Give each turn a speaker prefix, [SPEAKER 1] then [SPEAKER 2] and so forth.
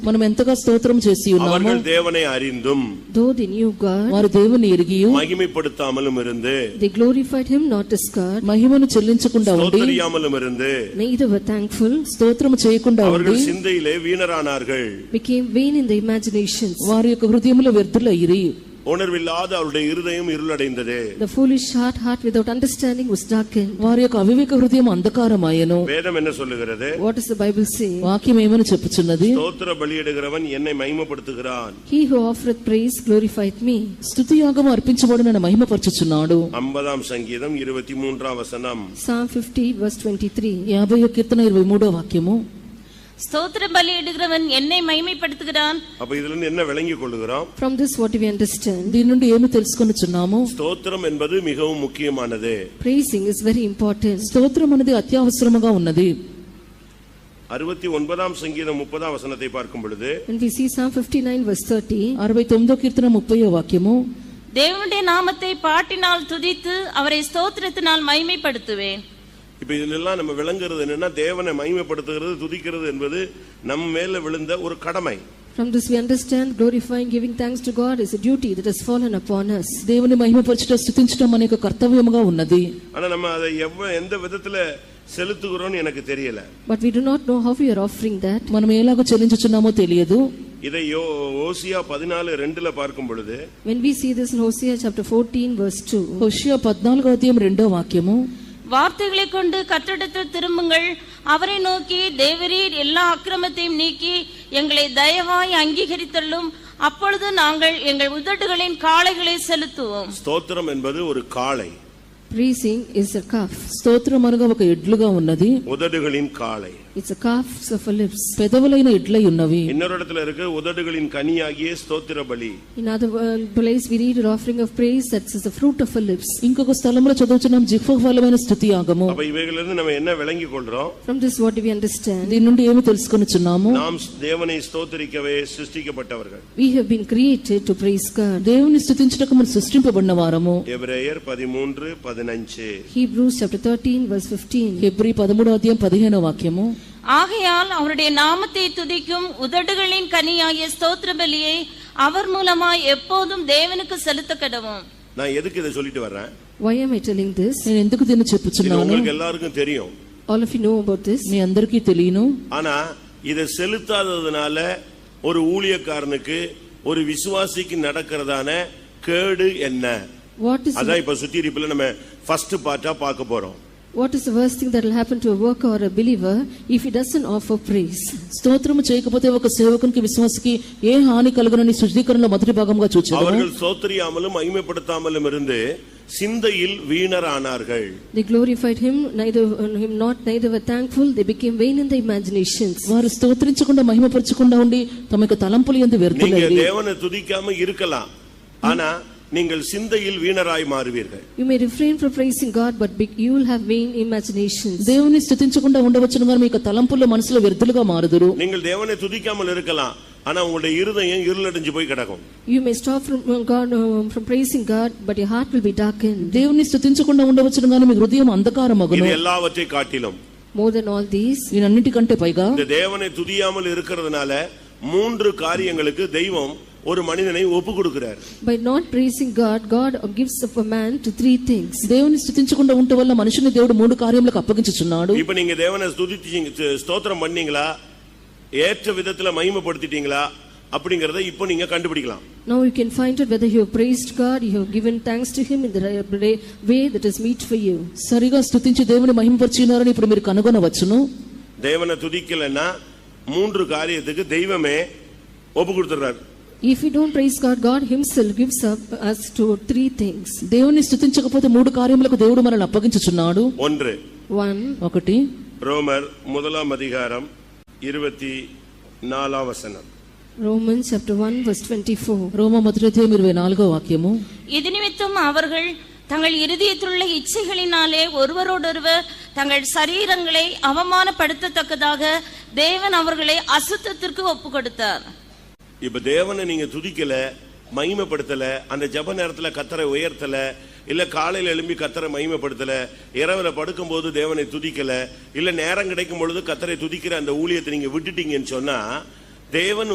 [SPEAKER 1] మనం ఎంతగా స్తోత్రం చేసి ఉన్నాము
[SPEAKER 2] அவர்கள் தேவனை அறிந்தும்
[SPEAKER 3] Though they knew God,
[SPEAKER 1] వారు దేవుని ఎరిగి
[SPEAKER 2] மகிமைப்படுத்தாமலும் இருந்து
[SPEAKER 3] they glorified him not as God,
[SPEAKER 1] మహిమను చెల్లించకుండా ఉండి
[SPEAKER 2] தோத்தரியாமலும் இருந்து
[SPEAKER 3] neither were thankful,
[SPEAKER 1] స్తోత్రము చేయకుండా ఉండి
[SPEAKER 2] அவர்கள் சிந்தையிலே வீணரானார்கள்
[SPEAKER 3] became vain in their imaginations.
[SPEAKER 1] వారి యొక్క హృదయములో వ్యర్థులయ్యి
[SPEAKER 2] உணர்வில்லாத அவருடைய இருதயம் இருளடைந்தது
[SPEAKER 3] The foolish heart, heart without understanding, was darkened.
[SPEAKER 1] వారి యొక్క అవివేక హృదయం అంధకారమాయను
[SPEAKER 2] வேதம் என்ன சொல்லுகிறது
[SPEAKER 3] What does the Bible say?
[SPEAKER 1] వాక్యం ఏమని చెప్పుచున్నది
[SPEAKER 2] ஸ்தோத்திர பலியிடுகிறவன் என்னை மகிமைப்படுத்துகிறான்
[SPEAKER 3] He who offereth praise glorified me.
[SPEAKER 1] స్థుతియాగము అర్పించబడు నన్ను మహిమపరచుచున్నాడు
[SPEAKER 2] ஐம்பதாம் சங்கீதம் இருபத்தி மூன்றாம் வசனம்
[SPEAKER 3] Psalm 50, verse 23.
[SPEAKER 1] యాభై కీర్తన ఇరవై మూడో వాక్యము
[SPEAKER 4] ஸ்தோத்திர பலியிடுகிறவன் என்னை மைமைப்படுத்துகிறான்
[SPEAKER 2] அப்ப இதுல இருந்து என்ன விளங்கிக் கொள்ளுகிறோம்
[SPEAKER 3] From this, what do we understand?
[SPEAKER 1] దీని నుండి ఏమి తెలుసుకొనుచున్నాము
[SPEAKER 2] ஸ்தோத்திரம் என்பது மிகவும் முக்கியமானது
[SPEAKER 3] Praising is very important.
[SPEAKER 1] స్తోత్రం అనేది అత్యవసరముగా ఉన్నది
[SPEAKER 2] அறுபத்தி ஒன்பதாம் சங்கீதம் முப்பதாம் வசனத்தை பார்க்கும் பொழுது
[SPEAKER 3] When we see Psalm 59, verse 30,
[SPEAKER 1] అరవై తొమ్మిదో కీర్తన ముప్పయో వాక్యము
[SPEAKER 4] தேவனுடைய நாமத்தை பாட்டினால் துதித்து அவரை ஸ்தோத்திரத்தினால் மைமைப்படுத்துவேன்
[SPEAKER 2] இப்ப இதுல எல்லாம் நம்ம விளங்குறது என்னன்னா தேவனை மகிமைப்படுத்துகிறது துதிக்கிறது என்பது நம் மேல விழுந்த ஒரு கடமை
[SPEAKER 3] from this we understand glorifying, giving thanks to God is a duty that has fallen upon us.
[SPEAKER 1] దేవుని మహిమపరచుట స్థుతించడం అనేక కర్తవ్యముగా ఉన్నది
[SPEAKER 2] ஆனா நம்ம அதை எவ்வ எந்த விதத்துல செலுத்துகிறோம்னு எனக்கு தெரியல
[SPEAKER 3] But we do not know how we are offering that.
[SPEAKER 1] మనం ఎలాగో చెల్లించుచున్నామో తెలియదు
[SPEAKER 2] இதை யோ ஓசியா பதினாலு ரெண்டுல பார்க்கும் பொழுது
[SPEAKER 3] When we see this in Hosea chapter 14, verse 2,
[SPEAKER 1] Hosea పద్నాలుగో అధ్యాయం రెండో వాక్యము
[SPEAKER 4] வார்த்தைகளை கொண்டு கற்றிடத்தில் திரும்புங்கள் அவரை நோக்கி தேவரீர் எல்லா அக்கிரமத்தையும் நீக்கி எங்களை தயவாய் அங்கீகரித்தள்ளும் அப்பொழுது நாங்கள் எங்கள் உதடுகளின் காளைகளை செலுத்துவோம்
[SPEAKER 2] ஸ்தோத்திரம் என்பது ஒரு காளை
[SPEAKER 3] praising is a calf.
[SPEAKER 1] స్తోత్రం అనగా ఒక ఎడ్లుగా ఉన్నది
[SPEAKER 2] உதடுகளின் காளை
[SPEAKER 3] It's a calf of our lips.
[SPEAKER 1] పెదవులైన ఎడ్లై ఉన్నవి
[SPEAKER 2] இன்னொரு இடத்துல இருக்கு உதடுகளின் கனியாகிய ஸ்தோத்திர பலி
[SPEAKER 3] In other wo- place, we read an offering of praise that is the fruit of our lips.
[SPEAKER 1] ఇంకొక స్థలంలో చదువుచున్నాం జిహ్వఫలమైన స్థుతి ఆగము
[SPEAKER 2] அப்ப இவைகளிலிருந்து நம்ம என்ன விளங்கி கொள்றோம்
[SPEAKER 3] From this, what do we understand?
[SPEAKER 1] దీని నుండి ఏమి తెలుసుకొనుచున్నాము
[SPEAKER 2] நாம் தேவனை ஸ்தோத்தரிக்கவே சிருஷ்டிக்கப்பட்டவர்கள்
[SPEAKER 3] We have been created to praise God.
[SPEAKER 1] దేవుని స్థుతించుటకు మనం సృష్టింపబడిన వారము
[SPEAKER 2] எபிரேயர் பதிமூன்று பதினஞ்சு
[SPEAKER 3] Hebrews chapter 13, verse 15.
[SPEAKER 1] హెబ్రీ పదమూడో అధ్యాయం పదిహేనో వాక్యము
[SPEAKER 4] ஆகையால் அவருடைய நாமத்தை துதிக்கும் உதடுகளின் கனியாகிய ஸ்தோத்திர பலியை அவர் மூலமாய் எப்போதும் தேவனுக்கு செலுத்த கடவும்
[SPEAKER 2] நான் எதுக்கு இதை சொல்லிட்டு வர்றேன்
[SPEAKER 3] Why am I telling this?
[SPEAKER 1] నేను ఎందుకు దీన్ని
[SPEAKER 2] இது
[SPEAKER 1] చెప్పుచున్నాను
[SPEAKER 2] உங்களுக்கு எல்லாருக்கும் தெரியும்
[SPEAKER 3] All of you know about this.
[SPEAKER 1] మీ అందరికీ తెలియను
[SPEAKER 2] ஆனா இதை செலுத்தாததுனால ஒரு ஊழியக்காரனுக்கு ஒரு விசுவாசிக்கு நடக்கிறதான கேடு என்ன
[SPEAKER 3] What is,
[SPEAKER 2] அதான் இப்ப சுத்திரிப்புல நம்ம ஃபர்ஸ்ட் பார்ட்டா பார்க்க போறோம்
[SPEAKER 3] what is the worst thing that will happen to a worker or a believer if he doesn't offer praise?
[SPEAKER 1] స్తోత్రము చేయకపోతే ఒక సేవకునికి విశ్వాసకి ఏ హాని కలుగునని శుద్ధీకరణలో మొదటి భాగంగా చూచారు
[SPEAKER 2] அவர்கள் சோத்தரியாமலும் மகிமைப்படுத்தாமலும் இருந்து சிந்தையில் வீணரானார்கள்
[SPEAKER 3] They glorified him, neither him not, neither were thankful. They became vain in their imaginations.
[SPEAKER 1] వారు స్తోత్రించకుండా మహిమపరచకుండా ఉండి తమ యొక్క తలంపులు ఎందు
[SPEAKER 2] நீங்க
[SPEAKER 1] వ్యర్థులైరి
[SPEAKER 2] தேவனை துதிக்காம இருக்கலாம் ஆனா நீங்கள் சிந்தையில் வீணராய் மாறுவீர்கள்
[SPEAKER 3] You may refrain from praising God, but be- you will have vain imaginations.
[SPEAKER 1] దేవుని స్థుతించకుండా ఉండవచ్చును గాని మీ యొక్క తలంపుల్లో మనసులో వ్యర్థులుగా మారుదురు
[SPEAKER 2] நீங்கள் தேவனை துதிக்காமல் இருக்கலாம் ஆனா உங்களுடைய இருதயம் இருளடைஞ்சு போய் கிடக்கும்
[SPEAKER 3] You may stop from uh, God uh, from praising God, but your heart will be darkened.
[SPEAKER 1] దేవుని స్థుతించకుండా ఉండవచ్చును గాని మీ హృదయం
[SPEAKER 2] இது
[SPEAKER 1] అంధకారమగును
[SPEAKER 2] எல்லாவற்றை కాட்டிலும்
[SPEAKER 3] More than all these,
[SPEAKER 1] ఈయనన్నిటికంటే పైగా
[SPEAKER 2] இந்த தேவனை துதியாமல் இருக்கிறதுனால மூன்று காரியங்களுக்கு தெய்வம் ஒரு மனிதனை ஒப்பு கொடுக்கிறார்
[SPEAKER 3] by not praising God, God gives up a man to three things.
[SPEAKER 1] దేవుని స్థుతించకుండా ఉండటం వల్ల మనిషిని దేవుడు మూడు కార్యములకు అప్పగించుచున్నాడు
[SPEAKER 2] இப்ப நீங்க தேவனை துதிச்சீங்க ஸ்து- ஸ்தோத்திரம் பண்ணீங்களா ஏற்ற விதத்துல மகிமைப்படுத்திட்டீங்களா அப்படிங்கறத இப்போ நீங்க கண்டுபிடிக்கலாம்
[SPEAKER 3] Now you can find out whether you have praised God, you have given thanks to Him in the right way that is meet for you.
[SPEAKER 1] సరిగా స్థుతించి దేవుని మహిమపరిచినారని ఇప్పుడు మీరు కనుగొనవచ్చును
[SPEAKER 2] தேவனை துதிக்கலைன்னா மூன்று காரியத்துக்கு தெய்வமே ஒப்பு கொடுத்துறாரு
[SPEAKER 3] If we don't praise God, God Himself gives up us to three things.
[SPEAKER 1] దేవుని స్థుతించకపోతే మూడు కార్యములకు దేవుడు మనల్ని అప్పగించుచున్నాడు
[SPEAKER 2] ஒன்று
[SPEAKER 3] One,
[SPEAKER 1] ఒకటి
[SPEAKER 2] ரோமர் முதலாம் அதிகாரம் இருபத்தி நாலாம் வசனம்
[SPEAKER 3] Romans chapter 1, verse 24.
[SPEAKER 1] రోమ మొదటిధ్యాయం ఇరవై నాలుగో వాక్యము
[SPEAKER 4] இது நிமித்தம் அவர்கள் தங்கள் இருதயத்திலுள்ள இச்சைகளினாலே ஒருவரோடொருவர் தங்கள் சரீரங்களை அவமானப்படுத்தத்தக்கதாக தேவன் அவர்களை அசுத்தத்திற்கு ஒப்புக் கொடுத்தார்
[SPEAKER 2] இப்ப தேவனை நீங்க துதிக்கல மகிமைப்படுத்தல அந்த ஜெப நேரத்துல கத்தரை உயர்த்தல இல்ல காலையில எழும்பி கத்தரை மகிமைப்படுத்தல இரவுல படுக்கும்போது தேவனை துதிக்கல இல்ல நேரம் கிடைக்கும் பொழுது கத்தரை துதிக்கிற அந்த ஊழியத்தை நீங்க விட்டுட்டீங்கன்னு சொன்னா தேவன்